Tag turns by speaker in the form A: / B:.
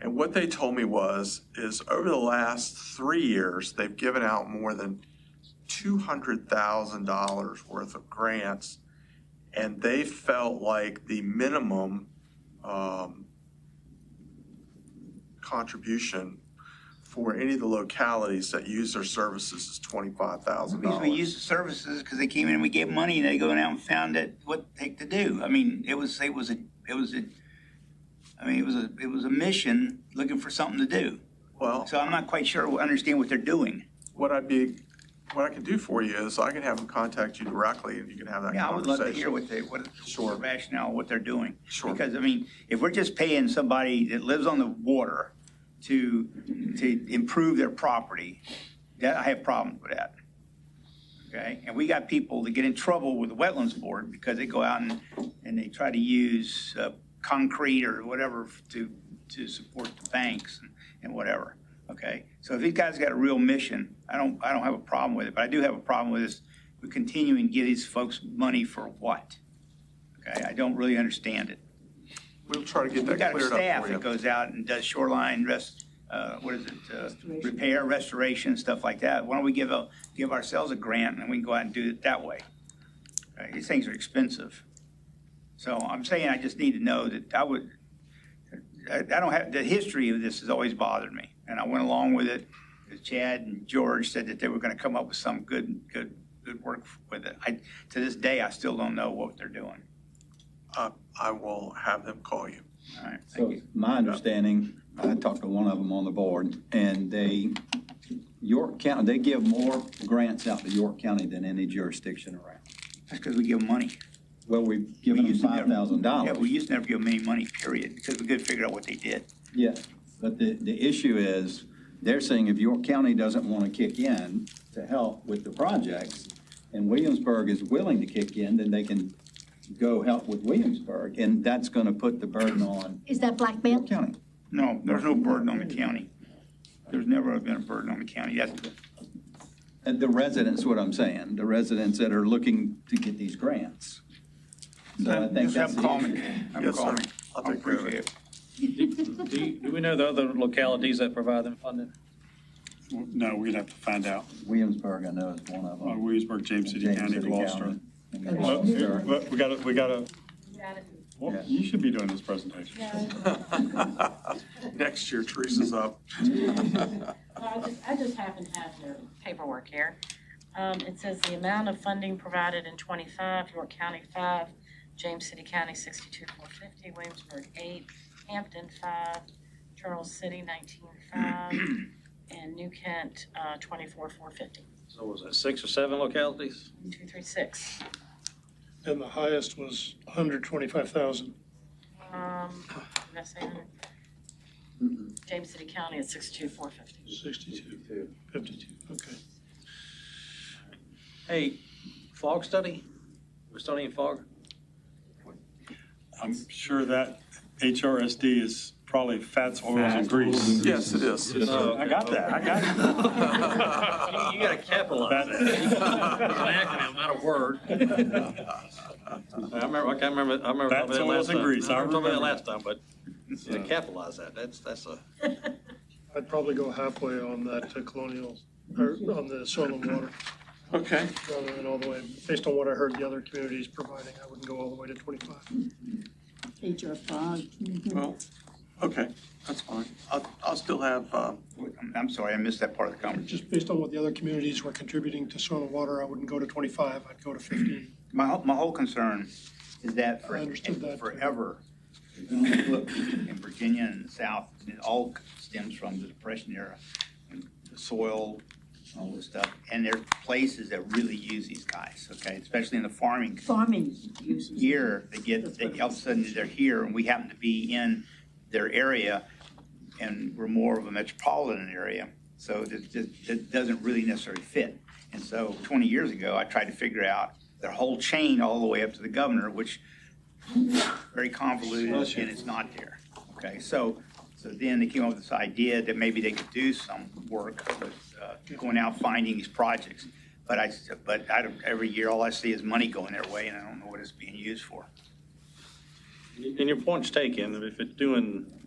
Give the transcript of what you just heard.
A: And what they told me was, is over the last three years, they've given out more than two hundred thousand dollars worth of grants. And they felt like the minimum, um, contribution for any of the localities that use their services is twenty-five thousand
B: Because
A: dollars.
B: we used the services, because they came in and we gave them money, and they go down and found that what the heck to do. I mean, it was, it was a, it was a, I mean, it was a, it was a mission looking for something to do.
A: Well,
B: So I'm not quite sure, understand what they're doing.
A: what I'd be, what I can do for you is I can have them contact you directly and you can have that
B: Yeah, I would love to
A: conversation.
B: hear what they, what
A: Sure.
B: the rationale, what they're doing.
A: Sure.
B: Because, I mean, if we're just paying somebody that lives on the water to, to improve their property, that, I have problems with that. Okay? And we got people that get in trouble with the Wetlands Board because they go out and, and they try to use uh, concrete or whatever to, to support the banks and whatever. Okay? So if these guys got a real mission, I don't, I don't have a problem with it, but I do have a problem with this, we continuing to give these folks money for what? Okay, I don't really understand it.
A: We'll try to get
B: We
A: that
B: got a
A: cleared up
B: staff
A: for
B: that
A: you.
B: goes out and does shoreline rest, uh, what is it? uh, Repair, restoration, stuff like that. Why don't we give a, give ourselves a grant and we can go out and do it that way? Right, These things are expensive. So I'm saying I just need to know that I would, I, I don't have, the history of this has always bothered me. And I went along with it. 'cause Chad and George said that they were gonna come up with some good, good, good work with it. I, to this day, I still don't know what they're doing.
A: Uh, I will have them call you.
B: All right, thank
C: So
B: you.
C: my understanding, I talked to one of them on the board, and they, York County, they give more grants out to York County than any jurisdiction around.
B: That's because we give them money.
C: Well, we've
B: We
C: given them
B: used to never-
C: five thousand
B: Yeah, we
C: dollars.
B: used to never give them any money, period, because we couldn't figure out what they did.
C: Yeah, but the, the issue is, they're saying if York County doesn't want to kick in to help with the projects, and Williamsburg is willing to kick in, then they can go help with Williamsburg, and that's going to put the burden on
D: Is that blackmail?
C: York County.
B: No, there's no burden on the county. There's never been a burden on the county. That's,
C: And the residents, what I'm saying, the residents that are looking to get these grants. So I think
B: just have
C: that's
B: them
C: the
B: call me.
C: issue.
B: Have them
A: Yes,
B: call
A: sir.
B: me.
A: I'll
B: I
A: take care of
B: appreciate
A: it.
B: it.
E: Do you- do we know the other localities that provide them funding?
F: No, we'd have to find out.
C: Williamsburg, I know, is one of
F: Uh,
C: them.
F: Williamsburg, James City County, Gloucester.
C: and
F: Well,
C: Gloucester.
F: but We gotta, we gotta,
D: Got it.
F: well,
C: Yeah.
F: you should be doing this presentation.
A: Next year, Teresa's up.
G: I just, I just happen to have the paperwork here. Um, it says the amount of funding provided in twenty-five, York County five, James City County sixty-two four fifty, Williamsburg eight, Hampton five, Charles City nineteen five, and New Kent, uh, twenty-four four fifty,
E: So was it six or seven localities?
G: two three six.
H: and the highest was 125,000.
G: Um, did I say that? James City County at sixty-two four fifty.
H: 62, 52, okay.
E: Hey, fog study? We're studying fog?
F: I'm sure that HRSD is probably fats, oils, and grease.
A: Yes, it is.
E: Oh,
F: I got that, I got it.
E: You you gotta capitalize it. It's an acronym, not a word. I remember, I can't remember, I remember. talking about
F: That's
E: that
F: oils
E: last
F: and
E: time.
F: grease, I
E: remember talking about
F: remember.
E: that last time, but to capitalize that, that's, that's a,
H: I'd probably go halfway on that uh, colonial, or on the soil and water,
A: Okay,
H: rather than all the way, based on what I heard the other communities providing, I wouldn't go all the way to 25.
D: HR five.
A: well, okay, that's fine. I'll, I'll still have, um,
B: I'm- I'm sorry, I missed that part of the conversation.
H: Just based on what the other communities were contributing to soil and water, I wouldn't go to 25, I'd go to 15.
B: My, whole- my whole concern is that for
H: I understood that, too.
B: forever, if you look in Virginia and the South, it all stems from the Depression era, and the soil, all this stuff. And there are places that really use these guys, okay, especially in the farming
D: Farming uses.
B: here, they get, they, all of a sudden, they're here, and we happen to be in their area, and we're more of a metropolitan area, so it, it, it doesn't really necessarily fit. And so twenty years ago, I tried to figure out their whole chain all the way up to the governor, which very convoluted, and it's not there. Okay, so, so then they came up with this idea that maybe they could do some work with, uh, going out finding these projects. But I, but I, don't- every year, all I see is money going their way, and I don't know what it's being used for.
E: and your point's taken, if it's doing